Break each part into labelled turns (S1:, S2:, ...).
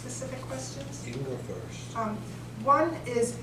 S1: questions.
S2: You can go first.
S1: Um, One is,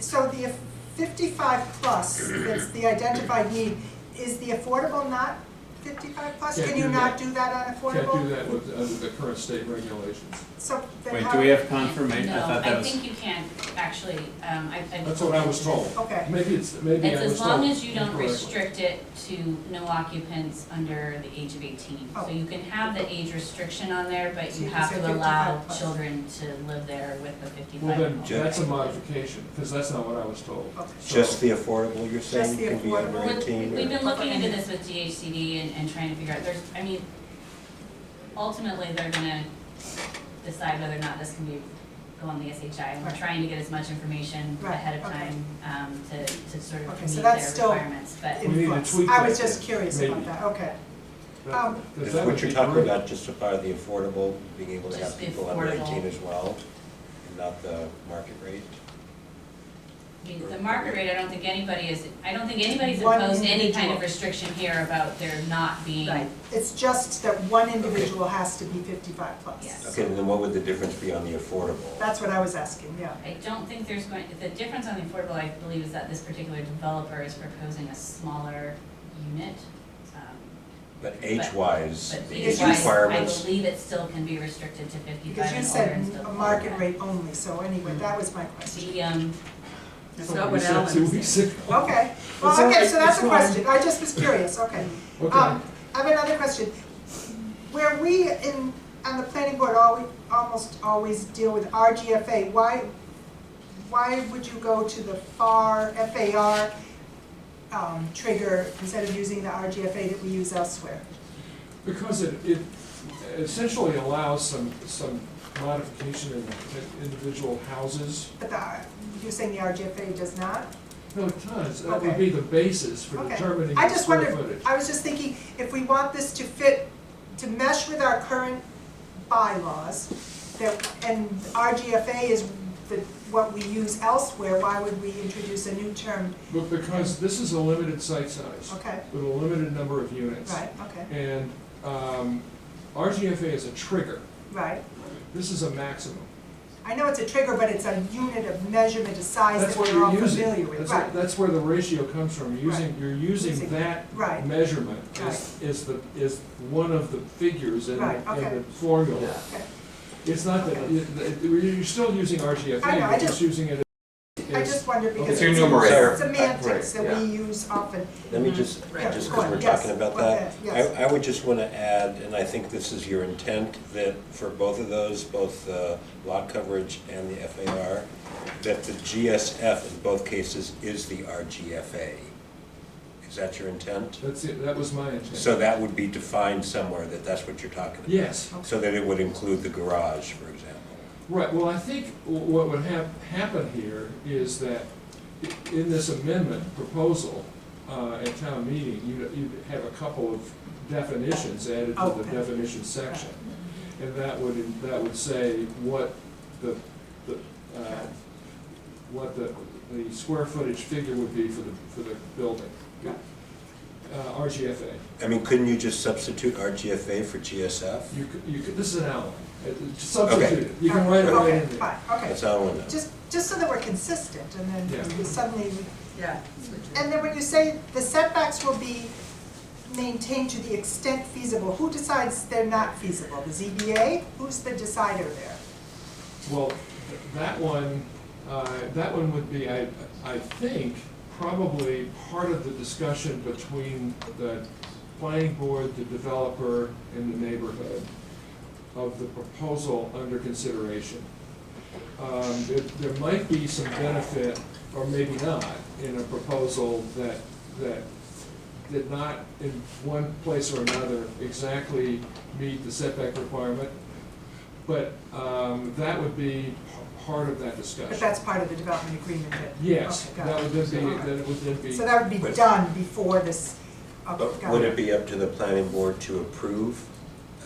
S1: so the fifty-five plus, that's the identified need, is the affordable not fifty-five plus?
S3: Can't
S1: Can you
S3: do
S1: not
S3: that.
S1: do that on
S3: Can't
S1: affordable?
S3: do that with, under the current state regulations.
S1: So then
S4: Wait,
S1: how?
S4: do we have confirmation? I thought that
S5: No, I
S4: was,
S5: think you can, actually, um, I, I.
S3: That's what I was told.
S1: Okay,
S3: Maybe it's, maybe
S5: It's
S3: I was
S5: as
S3: told.
S5: long as you don't
S3: incorrectly.
S5: restrict it to no occupants under the age of eighteen.
S1: Oh.
S5: So you can have the age restriction on there, but
S1: So
S5: you
S1: you can
S5: have
S1: say
S5: to allow
S1: 55 plus.
S5: children to live there with the fifty-five.
S3: Well, then,
S2: Ju-
S3: that's a modification, because that's not what I was told.
S1: okay.
S2: Just the affordable, you're saying,
S1: the
S2: can be under
S1: affordable.
S5: With-
S2: eighteen?
S5: We've
S2: or-
S5: been looking into this with DHCD and, and trying to figure out, there's, I mean, ultimately, they're gonna decide whether or not this can be, go on the SHI. And we're
S1: Right.
S5: trying to get as much information
S1: Right,
S5: ahead of
S1: okay.
S5: time, um, to, to sort of
S1: Okay,
S5: meet
S1: so
S5: their
S1: that's still
S5: requirements, but.
S3: We need to
S1: Influence.
S3: tweak
S1: I was
S3: that,
S1: just curious about
S3: maybe.
S1: that, okay. Um,
S3: Because
S2: Is
S3: that would
S2: what you're
S3: be
S2: talking
S3: great.
S2: about, just a part of the affordable, being able to have
S5: Just the
S2: people under
S5: affordable.
S2: eighteen as well, and not the market rate?
S5: I mean, the market rate, I don't think anybody is, I don't think anybody's
S1: One
S5: imposed any kind
S1: individual.
S5: of restriction here about there not being.
S1: Right, it's just that one individual has to be fifty-five plus.
S5: Yes.
S2: Okay, then what would the difference be on the affordable?
S1: That's what I was asking, yeah.
S5: I don't think there's going, the difference on the affordable, I believe, is that this particular developer is proposing a smaller unit. um,
S2: But age-wise,
S5: But
S2: the
S5: age
S2: age
S5: wise, I
S2: requirements,
S5: believe it still can be restricted to
S1: Because
S5: fifty-five
S1: you
S5: and older
S1: said
S5: and still.
S1: a market rate only, so anyway,
S3: Mm.
S1: that was my question.
S5: The, um,
S6: That's
S3: That's
S6: not
S3: we
S6: what
S3: said
S6: Alan
S3: two
S6: was
S3: weeks
S6: saying.
S3: ago.
S1: Okay, well,
S3: It's all
S1: okay,
S3: right,
S1: so that's
S3: it's
S1: a
S3: fine.
S1: question, I just was curious, okay.
S3: Okay,
S1: Um, I have another question. Where we in, on the planning board, always, almost always deal with RGFA, why, why would you go to the FAR, FAR, um, trigger instead of using the RGFA that we use elsewhere?
S3: because it, it essentially allows some, some modification in in individual houses.
S1: But the, you're saying the RGFA does not?
S3: No, it does, that would
S1: Okay.
S3: be the basis for
S1: Okay.
S3: determining
S1: I
S3: the
S1: just
S3: square footage.
S1: wondered, I was just thinking, if we want this to fit, to mesh with our current bylaws, that, and RGFA is the, what we use elsewhere, why would we introduce a new term?
S3: But because this is a limited site size
S1: Okay,
S3: with a limited number of units.
S1: right, okay,
S3: And um, RGFA is a trigger.
S1: right.
S3: This is a maximum.
S1: I know it's a trigger, but it's a unit of measurement, a size that
S3: That's what
S1: we're
S3: you're
S1: all
S3: using.
S1: familiar with,
S3: That's-
S1: right,
S3: That's where the ratio comes from. You're Using, you're using
S1: Using-
S3: that
S1: right,
S3: measurement is, is the, is one of the figures in,
S1: Right,
S3: the- in
S1: okay.
S3: the formula.
S1: okay.
S3: It's not that,
S1: Okay.
S3: it- it- you're still using RGFA,
S1: I know, I
S3: you're just
S1: just-
S3: using it as.
S1: I just wondered because
S3: It's
S1: it's
S3: your
S2: numerator.
S1: semantics
S2: Right,
S1: that we use often.
S2: let me just,
S1: Right.
S2: just
S1: Go
S2: because
S1: on,
S2: we're
S1: yes,
S2: talking about
S1: go
S2: that,
S1: ahead, yes.
S2: I, I would just want to add, and I think this is your intent, that for both of those, both the lot coverage and the FAR, that the GSF in both cases is the RGFA. Is that your intent?
S3: That's it, that was my intent.
S2: So that would be defined somewhere, that that's what you're talking about?
S3: Yes,
S2: So that it would include the garage, for example.
S3: right, well, I think wh- what would hap, happen here is that i- in this amendment proposal, uh, at town meeting, you'd, you'd have a couple of definitions added to the
S1: Okay.
S3: definition section. And that would, that would say what the, the, uh, what the, the square footage figure would be for the, for the building.
S1: Yeah.
S3: Uh, RGFA.
S2: I mean, couldn't you just substitute RGFA for GSF?
S3: You could, you could, this is an outline. It- it's Substitute it. You can write it right
S1: Uh, Okay,
S3: in there.
S1: fine, okay.
S2: That's all I want to know.
S1: Just, just so that we're consistent, and
S3: Yeah.
S1: then suddenly,
S6: Yeah.
S1: and then when you say the setbacks will be maintained to the extent feasible, who decides they're not feasible? The ZBA? Who's the decider there?
S3: Well, th- that one, uh, that one would be, I, I think, probably part of the discussion between the planning board, the developer, and the neighborhood of the proposal under consideration. Um, There there might be some benefit, or maybe not, in a proposal that, that did not in one place or another exactly meet the setback requirement, but um, that would be p- part of that
S1: But
S3: discussion.
S1: that's part of the development agreement that.
S3: Yes,
S1: Okay, got
S3: that would
S1: it.
S3: then be,
S1: All right.
S3: that would then be.
S1: So that would be done before this, oh,
S2: But
S1: got
S2: would it be up to the planning board to approve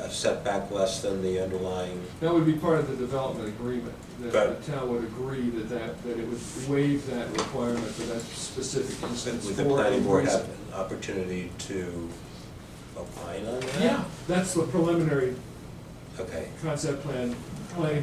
S2: a setback less than the underlying?
S3: That would be part of the development agreement, that
S2: But-
S3: the town would agree that that, that it would waive that requirement for that specific instance
S2: Would the
S3: for a
S2: planning board have
S3: reason.
S2: an opportunity to opine on that?
S3: Yeah, that's the preliminary
S2: Okay.
S3: concept plan, planning